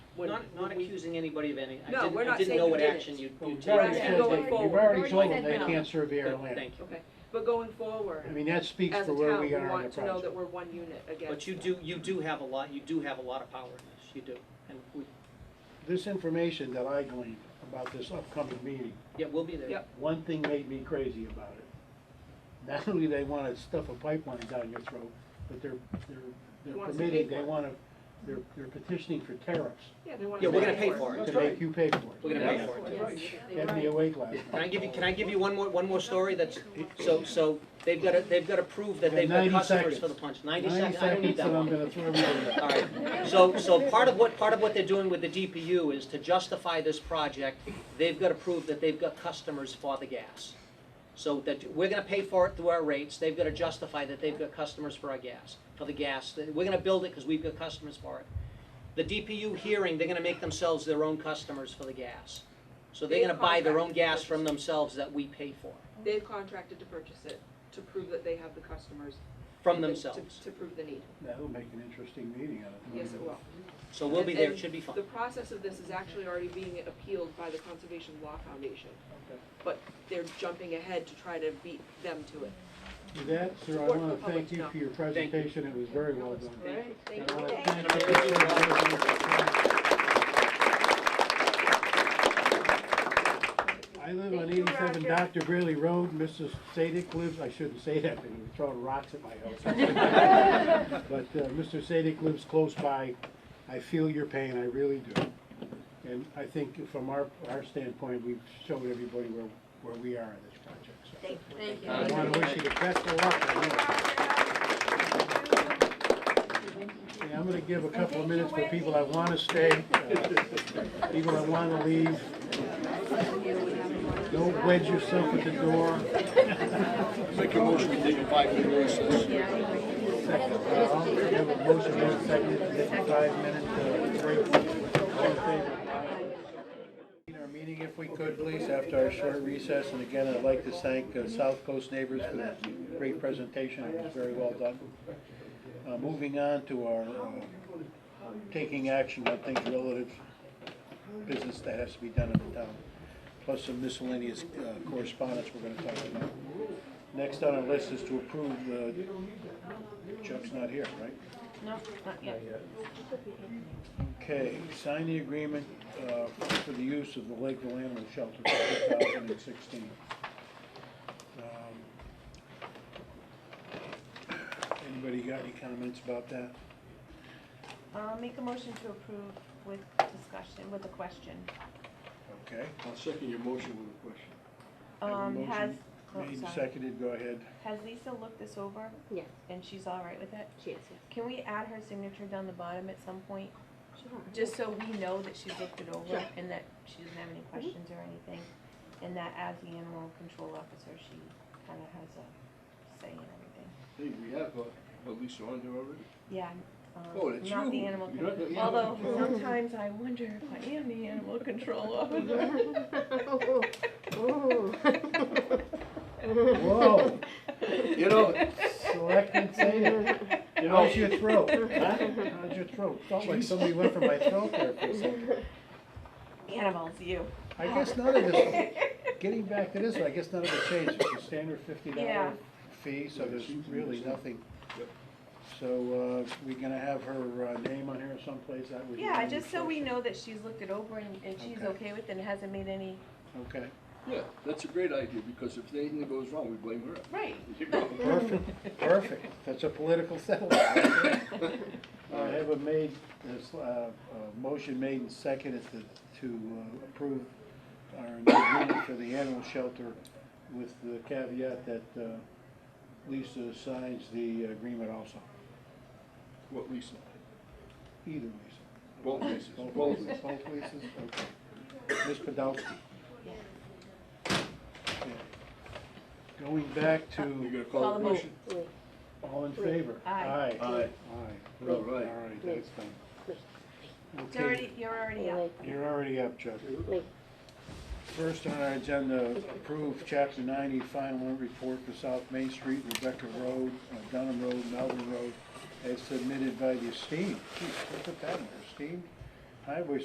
we're not, not accusing anybody of any, I No, didn't, we're I not didn't saying know you what did it. action you, Well, you we've take. Right, already and told going them- forward. You've already Already told said them they no. can't serve air Good, and land. Thank you. Okay, but going forward, I mean, that speaks as for a where town, we we are on the want to know that project. we're one unit again. But you do, you do have a lot, you do have a lot of power in this, you do. And we, This information that I gleaned about this upcoming meeting, yeah, we'll be there. Yep. one thing made me crazy about it. Not only they wanna stuff a pipeline down your throat, but they're, they're, they're Want us to permitting, pay for they it. wanna, they're, they're petitioning for tariffs Yeah, they want Yeah, to. we're gonna pay for it. to That's make you pay for it. We're gonna pay for it. Yes, they Had me were. awake last night. Can I give you, can I give you one more, one more story that's, so, so they've gotta, they've gotta prove that they've got 90 customers seconds. for the punch. Ninety seconds, I don't Ninety need seconds that and I'm one. gonna throw everybody All out. right, so, so part of what, part of what they're doing with the DPU is to justify this project, they've gotta prove that they've got customers for the gas. So that, we're gonna pay for it through our rates, they've gotta justify that they've got customers for our gas, for the gas, That we're gonna build it because we've got customers for it. The DPU hearing, they're gonna make themselves their own customers for the gas. So they're They gonna buy their own contract to gas purchase from it. themselves that we pay for, They've contracted to purchase it, to prove that they have the customers. from to- themselves. To, to prove the need, That'll make an interesting meeting out of it. yes, it will. So we'll be And- there, it and should be fun. The process of this is actually already being appealed by the Conservation Law Foundation, Okay. but they're jumping ahead to try to beat them to it. With that, sir, I Support wanna for public thank you for your presentation, it was very well done. Right, And thank I you. wanna Thank thank you. I live on Thank you, eighty-seven Roger. Dr. Greeley Road, Mrs. Sadik lives, I shouldn't say that, they were throwing rocks at my house. But, uh, Mr. Sadik lives close by, I feel your pain, I really do. And I think from our, our standpoint, we've showed everybody where, where we are in this project, so. Thank thank you. I want to wish you the best of luck. I know. Yeah, I'm going to give a couple of minutes for people that want to stay, uh, people that want to leave. Don't wedge yourself at the door. Make a motion to take a five-minute recess. Uh, We have a motion in a second, fifty-five minutes. Our meeting, if we could, please, after our short recess, and again, I'd like to thank uh, South Coast Neighbors for that great presentation, it was very well done. Uh, Moving on to our uh, taking action on things relative business that has to be done in the town, plus some miscellaneous uh, correspondence we're gonna talk about. Next on our list is to approve uh, the, Chuck's not here, right? No, not yet. Okay, sign the agreement uh, for the use of the Lakeville Animal Shelter for 2016. Um, Anybody got any comments about that? I'll Uh, make a motion to approve with discussion, with a question. Okay. I'll second your motion with a question. Have a Um, has, motion oh, Made and sorry. seconded, go ahead. Has Lisa looked this over Yes, and she's all right with it? she is, yes. Can we add her signature down the bottom at some point? Sure. Just so we know that she's looked it over and that she doesn't have any Mm-hmm. questions or anything? And that as the animal control officer, she kind of has a say in everything. Hey, we have, uh, oh, Lisa on here already? Yeah, um, Oh, that's not the you. animal You're not the control, animal although control. sometimes I wonder if I am the animal control officer. Whoa, You know, Selectman Zeta, you know, how's your throat? Huh? How's your throat? Felt like somebody went for my throat there for a second. Animals, you. I guess none of this, getting back to this, I guess none of it changed, it's a standard fifty dollar Yeah. fee, so there's really nothing. Yep. So, uh, we gonna have her, uh, name on here someplace, that would. be Yeah, on the just so we social. know that she's looked it over and, and she's Okay. okay with it and hasn't made any. Okay, yeah, that's a great idea, because if anything goes wrong, we blame her. Right. You know? perfect, perfect, that's a political settlement. I have a made, this, uh, a motion made and seconded to, to uh, approve our agreement for the animal shelter with the caveat that, uh, Lisa signs the agreement also, What Lisa? either Lisa. Both Lisas. Both Both places, both places, okay. Ms. Podolsky? Okay. Going back You to, gonna call Call the the vote. motion? Wait, all in favor? Aye. Aye. Aye. Aye. All right. All right, that's done. It's Okay, already, you're already wait, up. wait, you're already up, Chuck. wait. First on our agenda, approve chapter ninety final report for South Main Street, Rebecca Road, uh, Dunham Road, Melvin Road, as submitted by the esteemed, geez, look at that, esteemed highway